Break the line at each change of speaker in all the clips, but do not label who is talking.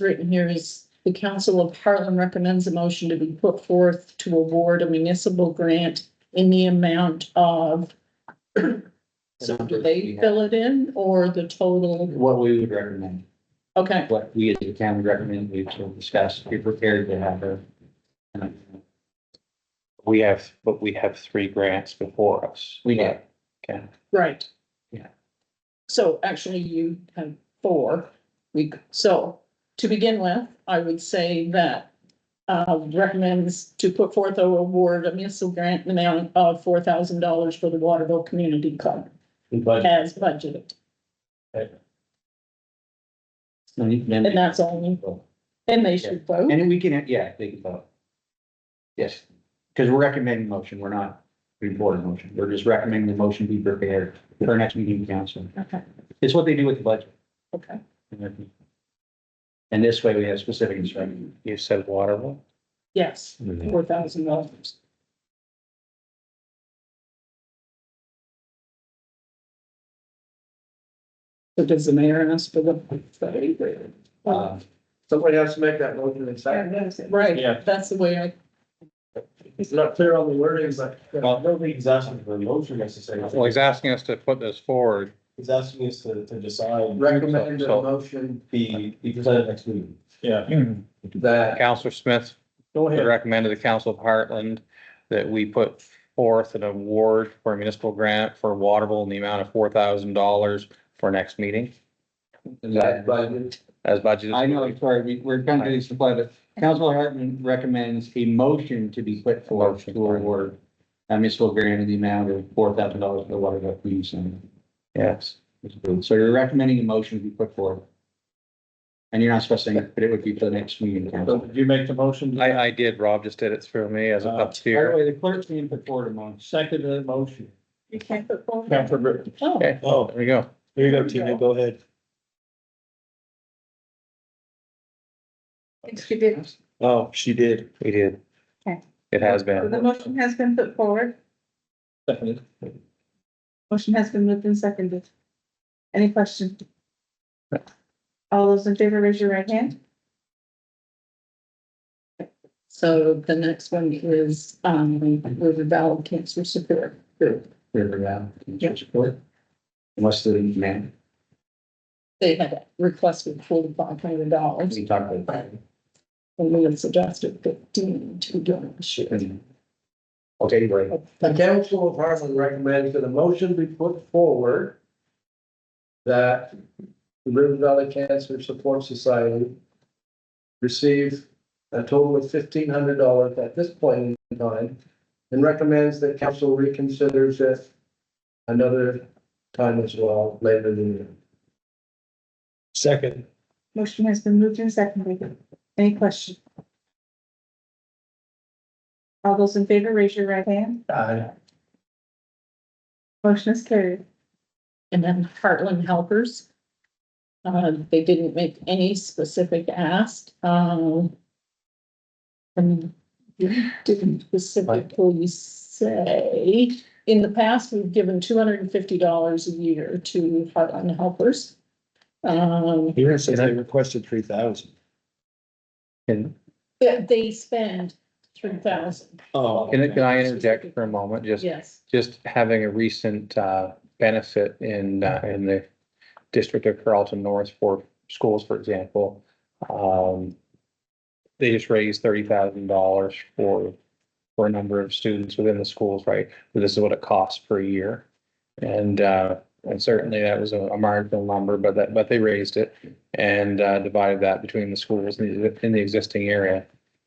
written here is the Council of Harlem recommends a motion to be put forth to award a municipal grant in the amount of, so do they fill it in or the total?
What we would recommend,
Okay,
what we as a town would recommend, we will discuss, be prepared to have a.
We have, but we have three grants before us.
We have,
right.
Yeah.
So actually you have four. We, so to begin with, I would say that uh, recommends to put forth a award, a municipal grant in the amount of four thousand dollars for the Waterville Community Club
but.
as budgeted. And
And
that's only, and they should vote.
then we can, yeah, they can vote. Yes, because we're recommending motion, we're not reporting motion, we're just recommending the motion be prepared for our next meeting council.
Okay,
It's what they do with the budget.
okay.
And this way we have specific instruction.
You said Waterville?
Yes, four thousand dollars. So does the mayor ask for the?
Uh,
Somebody has to make that motion in second.
Right,
Yeah.
that's the way I,
It's not clear on the wording, but I don't think he's asking for a motion necessarily.
Well, he's asking us to put this forward.
He's asking us to, to decide
Recommend a
So-
motion
the, the presented next meeting. Yeah.
that,
Counselor Smith
Go
recommended the Council of Heartland that we put forth an award for a municipal grant for Waterville in the amount of four thousand dollars for next meeting
that budget,
as budgeted.
I know, sorry, we, we're kind of getting supply, but Council Hartman recommends a motion to be put forth to award. Uh, municipal grant in the amount of four thousand dollars for the water that we use. in-
Yes,
So you're recommending a motion to be put forward. And you're not specifying, but it would be for the next meeting.
So
council.
did you make the motion?
I, I did. Rob just did it through me as
Uh,
up
By the
tier.
way, the clerk's being put forward a motion.
Second the motion.
you can't put forward.
Counselor Britton.
Oh,
Okay,
Oh,
there we go.
there you
go, Tina,
go ahead.
Yes, you did.
Oh, she did.
We did.
Okay.
It has
The
been.
motion has been put forward.
Seconded.
Motion has been moved and seconded. Any question? All those in favor, raise your right hand.
so the next one is, um, River Valley Cancer Support Group.
River Valley, can you support? Unless the man,
They had requested forty-five hundred dollars.
we talked about.
And we had suggested fifteen to do this year.
Okay, right.
the council of Harlem recommends that a motion be put forward that the River Valley Cancer Support Society receive a total of fifteen hundred dollars at this point in time and recommends that council reconsiders it another time as well later in the year.
Second.
Motion has been moved and seconded. Any question? All those in favor, raise your right hand.
Aye.
Motion is carried.
And then Heartland Helpers. Uh, they didn't make any specific ask, um. And didn't specifically say, in the past, we've given two hundred and fifty dollars a year to Heartland Helpers. Um,
Here it says they requested three thousand.
Can,
they, they spend three thousand,
Oh.
can I- can I interject for a moment? Just
yes,
just having a recent uh, benefit in, uh, in the district of Carlton North for schools, for example. um, They just raised thirty thousand dollars for, for a number of students within the schools, right? So This is what it costs per year. And, uh, and certainly that was a a marginal number, but that, but they raised it and uh, divided that between the schools in the, in the existing area.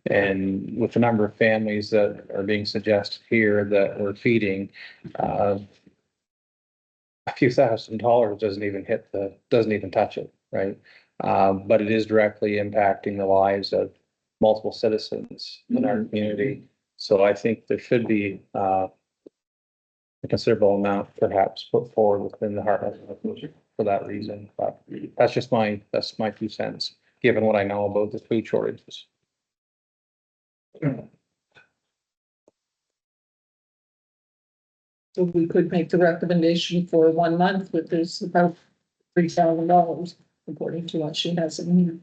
And with the number of families that are being suggested here that we're feeding, uh, a few thousand dollars doesn't even hit the, doesn't even touch it, right? Uh, but it is directly impacting the lives of multiple citizens in our community. So I think there should be, uh, a considerable amount perhaps put forward within the Heartland for that reason. But that's just my, that's my two cents, given what I know about the food shortages.
so we could make the recommendation for one month, but there's about three thousand dollars, according to what she has in here.